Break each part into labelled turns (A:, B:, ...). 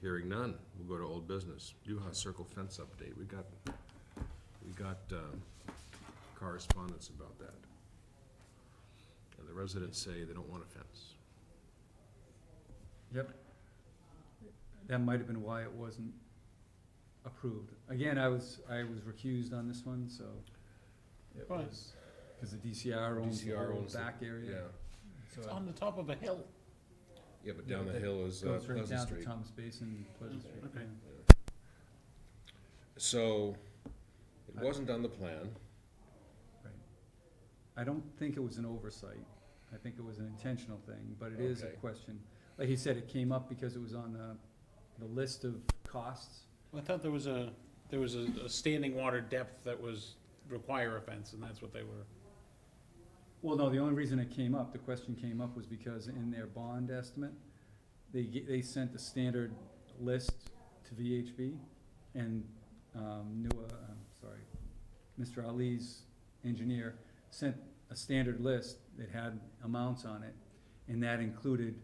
A: Hearing none, we'll go to old business. Yuha Circle fence update, we got, we got um, correspondence about that. And the residents say they don't want a fence.
B: Yep. That might have been why it wasn't approved. Again, I was, I was recused on this one, so it
C: Why?
B: was, cause the DCR owns the
A: DCR
B: whole
A: owns the-
B: back area. so
C: It's
B: I-
C: on the top of a hill.
A: Yeah, but
B: Yeah,
A: down
B: but
A: the
B: that
A: hill is uh,
B: Goes right
A: Pleasant
B: down to
A: Street.
B: Thomas Basin, Pleasant Street.
C: Okay.
B: yeah.
A: So, it wasn't on the plan.
B: I don't think it was an oversight. I think it was an intentional thing, but it is a
A: Okay.
B: question. Like he said, it came up because it was on the, the list of costs.
C: I thought there was a, there was a, a standing water depth that was, require a fence, and that's what they were.
B: Well, no, the only reason it came up, the question came up was because in their bond estimate, they, ge- they sent the standard list to VHB and, um, Nua, um, sorry, Mr. Ali's engineer sent a standard list that had amounts on it, and that included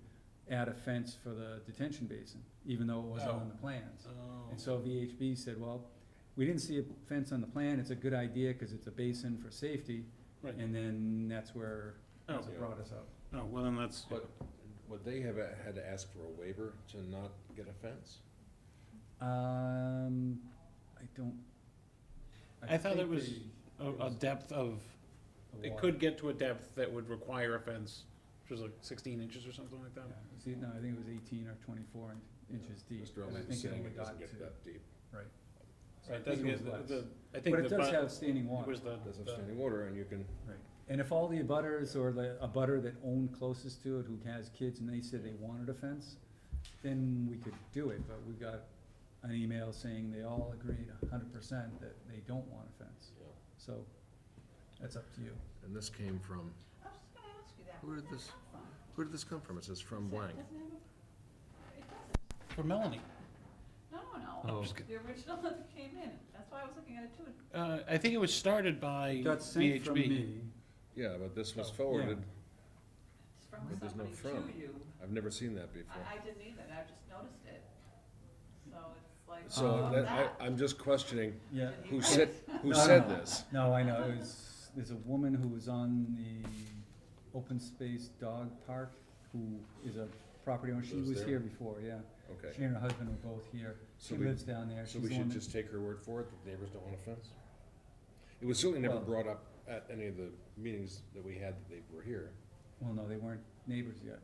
B: add a fence for the detention basin, even though it wasn't on the plans.
C: Oh.
B: And so VHB said, well, we didn't see a fence on the plan, it's a good idea, cause it's a basin for safety.
C: Right.
B: And then that's where, that's what
A: Oh.
B: brought us up.
C: Oh, well, then that's,
A: But would they have uh, had to ask for a waiver to not get a fence?
B: Um, I don't.
C: I thought
B: think
C: it was
B: the-
C: a, a depth of,
B: the
C: it
B: water-
C: could get to a depth that would require a fence, which was like sixteen inches or something like
B: yeah,
C: that.
B: it was e- no, I think it was eighteen or twenty-four in- inches deep.
A: Mr.
B: and
A: Ellis
B: I think
A: is saying
B: only
A: it doesn't
B: got
A: get
B: to-
A: that deep.
B: so I
C: Right,
B: think
C: it doesn't
B: it was
C: get, the,
B: less.
C: the- I think
B: But
C: the.
B: it does
C: bu-
B: have standing
C: It
B: water,
C: was the,
A: Doesn't
C: the-
A: have standing water and you can,
B: right. And if all the abutters or the, a butter that owned closest to it who has kids and they said they wanted a fence, then we could do it, but we got an email saying they all agreed a hundred percent that they don't want a fence.
A: you know.
B: So, that's up to you.
A: and this came from,
D: I was just gonna ask you that.
A: Where did this- where did this come from? It says from blank.
C: for Melanie.
D: No,
B: Oh.
D: no,
C: I'm just g-
D: the original that came in, that's why I was looking at it too.
C: Uh, I think it was started by
B: Got sent from
C: VHB.
B: me.
A: Yeah, but this was
C: Oh.
A: forwarded,
D: It's from
A: But there's no
D: somebody
A: from.
D: to you.
A: I've never seen that before.
D: I, I didn't either, I just noticed it. So it's like,
A: So
B: Uh,
D: oh,
A: that,
D: that.
A: I, I'm just questioning
B: Yeah,
D: Did he
A: who
D: write
A: said,
D: it?
A: who
B: No,
A: said
B: no.
A: this?
B: no, I know, it was, there's a woman who was on the open space dog park, who is a property owner, she
A: Was
B: was
A: there?
B: here before, yeah. She
A: Okay,
B: and her husband were both here,
A: So
B: she
A: we-
B: lives down there,
A: so
B: she's
A: we
B: the one
A: should
B: that-
A: just take her word for it, that neighbors don't want a fence? It was certainly never
B: Well-
A: brought up at any of the meetings that we had that they were here.
B: well, no, they weren't neighbors yet.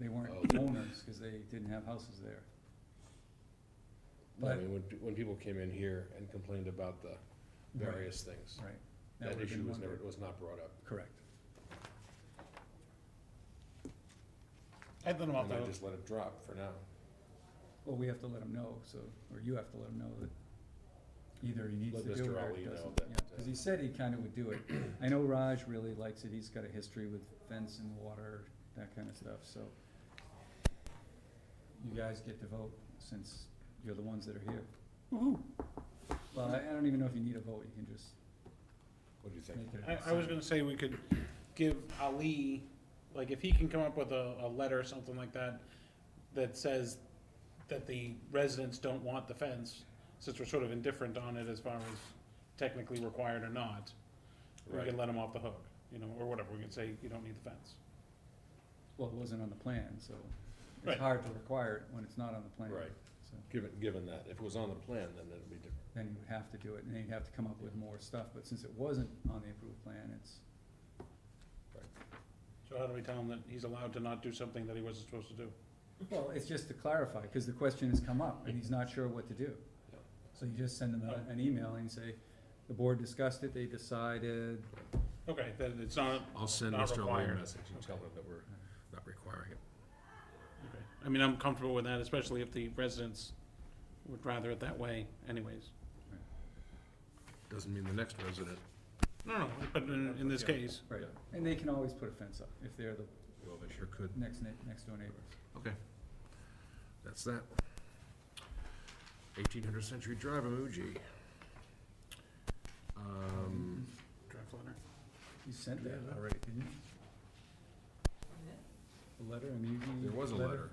B: They weren't
A: Oh.
B: owners, cause they didn't have houses there.
A: I
B: But-
A: mean, when, when people came in here and complained about the
B: Right.
A: various things,
B: Right.
A: that
B: would've been
A: issue was
B: one
A: never,
B: bit.
A: was not brought up.
B: Correct.
C: I thought about
A: And I
C: that,
A: just let it drop for now.
B: Well, we have to let him know, so, or you have to let him know that either he needs
A: Let
B: to do
A: Mr.
B: it or
A: Ali
B: it
A: know
B: doesn't.
A: that,
B: Yeah, cause he said he kinda would do it. I know Raj really likes it, he's got a history with fence and water, that kinda stuff, so. You guys get to vote since you're the ones that are here. Well, I, I don't even know if you need a vote, you can just
A: What do you think?
B: make it. a
C: I, I was gonna say we could give Ali, like, if he can come up with a, a letter or something like that, that says that the residents don't want the fence, since we're sort of indifferent on it as far as technically required or not, we
A: Right.
C: can let them off the hook, you know, or whatever, we can say, you don't need the fence.
B: Well, it wasn't on the plan, so
C: Right.
B: it's hard to require it when it's not on the plan.
A: Right.
B: So,
A: Given, given that, if it was on the plan, then it'd be different.
B: then you would have to do it, and then you'd have to come up with more stuff, but since it wasn't on the approved plan, it's,
C: So how do we tell him that he's allowed to not do something that he wasn't supposed to do?
B: well, it's just to clarify, cause the question has come up, and he's not sure what to do.
A: Yeah.
B: So you just send them a- an email and say, the board discussed it, they decided,
C: Okay, then it's not,
A: I'll send
C: Not
A: Mr. O'Leary a
C: required.
A: message and tell him that we're not requiring it.
C: okay, I mean, I'm comfortable with that, especially if the residents would rather it that way anyways.
A: Doesn't mean the next resident
C: No, no, but in, in this case,
B: right, and they can always put a fence up, if they're the
A: Well, they sure could.
B: next ne- next door neighbor.
A: Okay. That's that. Eighteen hundred century drive emoji. Um,
C: draft letter.
B: You sent that
A: Yeah.
B: already, didn't you? The letter, I mean, you.
A: there was a letter.